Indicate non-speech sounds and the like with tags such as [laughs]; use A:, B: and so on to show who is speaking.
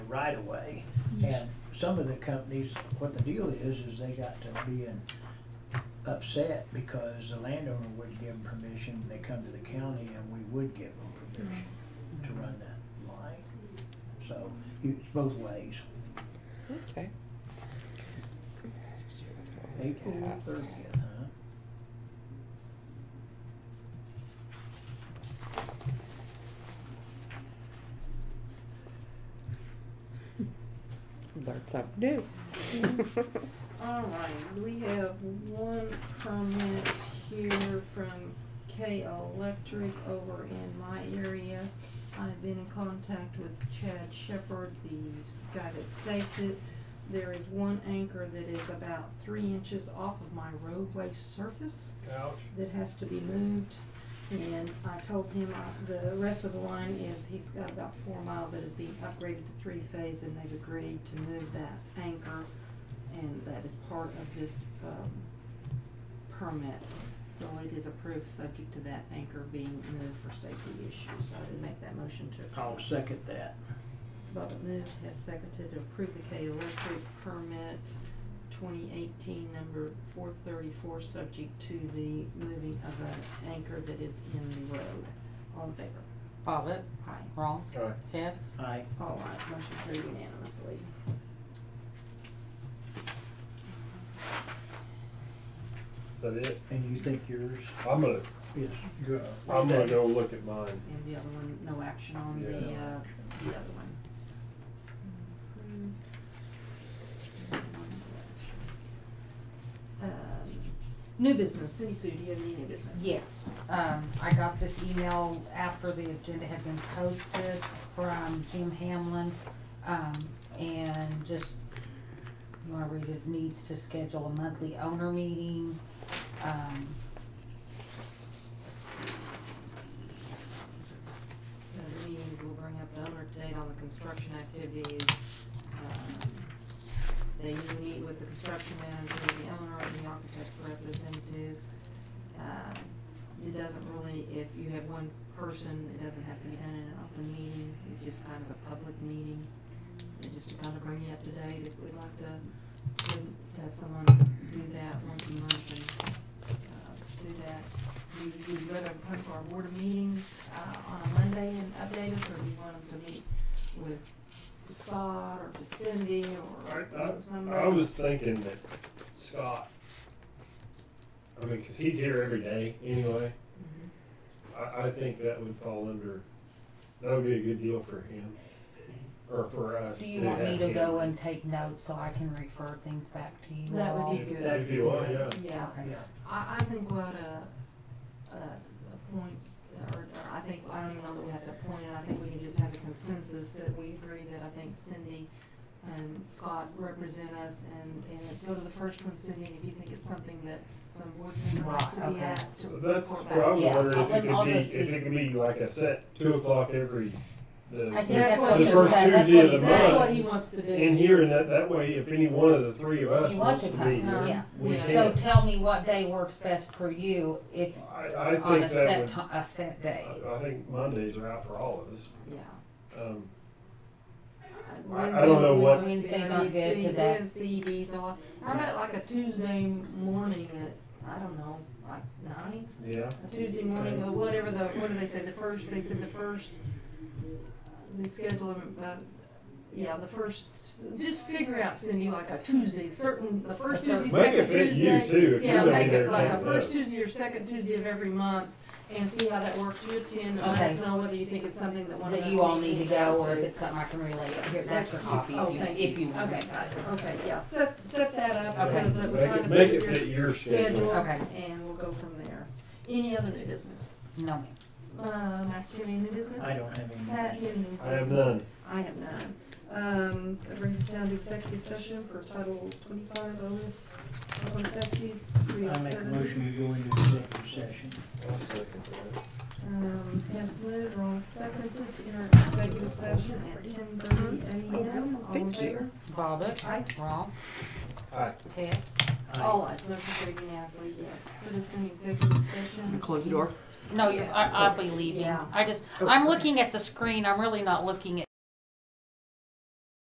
A: right of way. And some of the companies, what the deal is, is they got to being upset because the landowner wouldn't give them permission. They come to the county and we would give them permission to run that line. So it's both ways.
B: Okay.
A: April
B: Yes.
A: thirtieth, huh?
B: Learn something
C: [laughs]
B: new.
D: All right, we have one comment here from K Electric over in my area. I've been in contact with Chad Shepherd, the guy that staked it. There is one anchor that is about three inches off of my roadway surface
E: Ouch.
D: that has to be moved. And I told him I- the rest of the line is, he's got about four miles that is being upgraded to three phase and they've agreed to move that anchor. And that is part of this, um, permit. So it is approved, subject to that anchor being moved for safety issues. I would make that motion to approve.
A: I'll second that.
D: Bobbit moved, has seconded to approve the K Electric permit twenty eighteen number four thirty-four, subject to the moving of an anchor that is in the road. All in favor?
F: Bobbit,
D: Aye.
F: wrong,
E: Aye.
F: Hess,
A: Aye.
D: All ayes, motion carried unanimously.
E: Is that it?
A: And you think yours
E: I'm gonna,
A: is good?
E: I'm gonna go look at mine.
D: And the other one, no action Mm-hmm. on the,
E: Yeah.
D: uh, the other one. Um, new business, Cindy Sue, do you have any new business?
F: Yes, um, I got this email after the agenda had been posted from Jim Hamlin, um, and just, you wanna read it, needs to schedule a monthly owner meeting, um.
D: Uh, the meeting will bring up the owner date on the construction activities. Um, They need to meet with the construction manager, the owner, and the architect representatives. Um, It doesn't really, if you have one person, it doesn't have to be done in an open meeting, it's just kind of a public meeting. And Just to kind of bring you up to date, if we'd like to, to to have someone do that once a month and, uh, do that. Do you, do you rather come to our board of meetings, uh, on a Monday and update us, or do you want them to meet with Scott or to Cindy or
E: I- I-
D: somebody?
E: I was thinking that Scott, I mean, cause he's here every day anyway.
D: Mhm.
F: Mm-hmm.
E: I, I think that would fall under, that would be a good deal for him, or for us
F: Do
E: to
F: you want me
E: have
F: to go
E: him.
F: and take notes so I can refer things back to you
D: That would
F: all?
D: be
E: If-
D: good.
E: If you want, yeah.
D: Yeah,
F: Okay.
D: I, I think what a, a, a point, uh, or, or I think, I don't even know that we have to appoint, it. I think we can just have a consensus that we agree that I think Cindy and Scott represent us, and, and go to the first one, Cindy, if you think it's something that some board member wants to
F: Right,
D: be
F: okay.
D: at, to
E: That's
D: report
E: what I
D: back.
E: was
F: Yes,
E: wondering, if
F: I'll-
E: it could
F: I'll
E: be,
F: go see.
E: if it could be like a set two o'clock every, the,
F: I think
E: the
D: that's what
E: the
D: he
E: first
F: said, that's
E: Tuesday
F: what he said.
E: of the month.
D: That's what he wants to do.
E: in here, and that, that way, if any one of the three of us
F: You want
E: wants
F: to
E: to
F: come,
E: be here,
F: yeah.
E: we
D: Yeah.
F: So
E: can.
F: tell me what day works best for you, if,
E: I, I
F: on a
E: think that
F: set
E: would,
F: ti- a set day.
E: I I think Mondays are out for all of us.
D: Yeah.
E: Um,
D: I
E: I don't know what-
F: Wednesdays aren't good 'cause that-
D: CDs, all, how about like a Tuesday morning at, I don't know, like nine?
E: yeah,
D: a Tuesday morning, or whatever the, what do they say, the first, they said the first, they schedule them, uh, yeah, the first, just figure out, Cindy, like a Tuesday, certain, the first Tuesday,
E: make
D: second
E: it fit
D: Tuesday.
E: you too, if you're
D: Yeah,
E: gonna
D: make
E: be there.
D: it like a
E: for
D: first
E: us.
D: Tuesday or second Tuesday of every month, and see how that works, you attend, and let
F: Okay.
D: us know whether you think it's something that one of us.
F: that you all need
D: needs
F: to go, or if it's something I can relate, here, that's your copy,
D: Oh,
F: if you,
D: thank
F: if you want.
D: Okay, got it, okay, yeah, set, set that up, so
F: Okay.
D: that we're
E: Make
D: trying
E: it,
D: to
E: make
D: figure
E: it
D: your
E: fit your
D: schedule,
E: schedule.
F: Okay.
D: and we'll go from there. Any other new business?
F: No, ma'am.
D: Um, actually, any new business?
A: I don't have any.
D: Pat, you have any new
E: I have
D: business?
E: none.
D: I have none. Um, that brings us down to executive session for title twenty-five, bonus, open safety, three
A: I
D: oh
A: make a
D: seven.
A: motion to go into executive session.
D: Um, Hess moved, Ron seconded to enter executive session at ten thirty AM. All in favor?
F: Bobbit,
D: Aye.
F: wrong,
E: Aye.
F: Hess.
A: Aye.
D: All eyes, motion carried unanimously, yes. Put us in executive session.
C: Close the door.
F: No, you- I, I'll be leaving,
D: Yeah.
F: I just, I'm looking at the screen, I'm really not looking at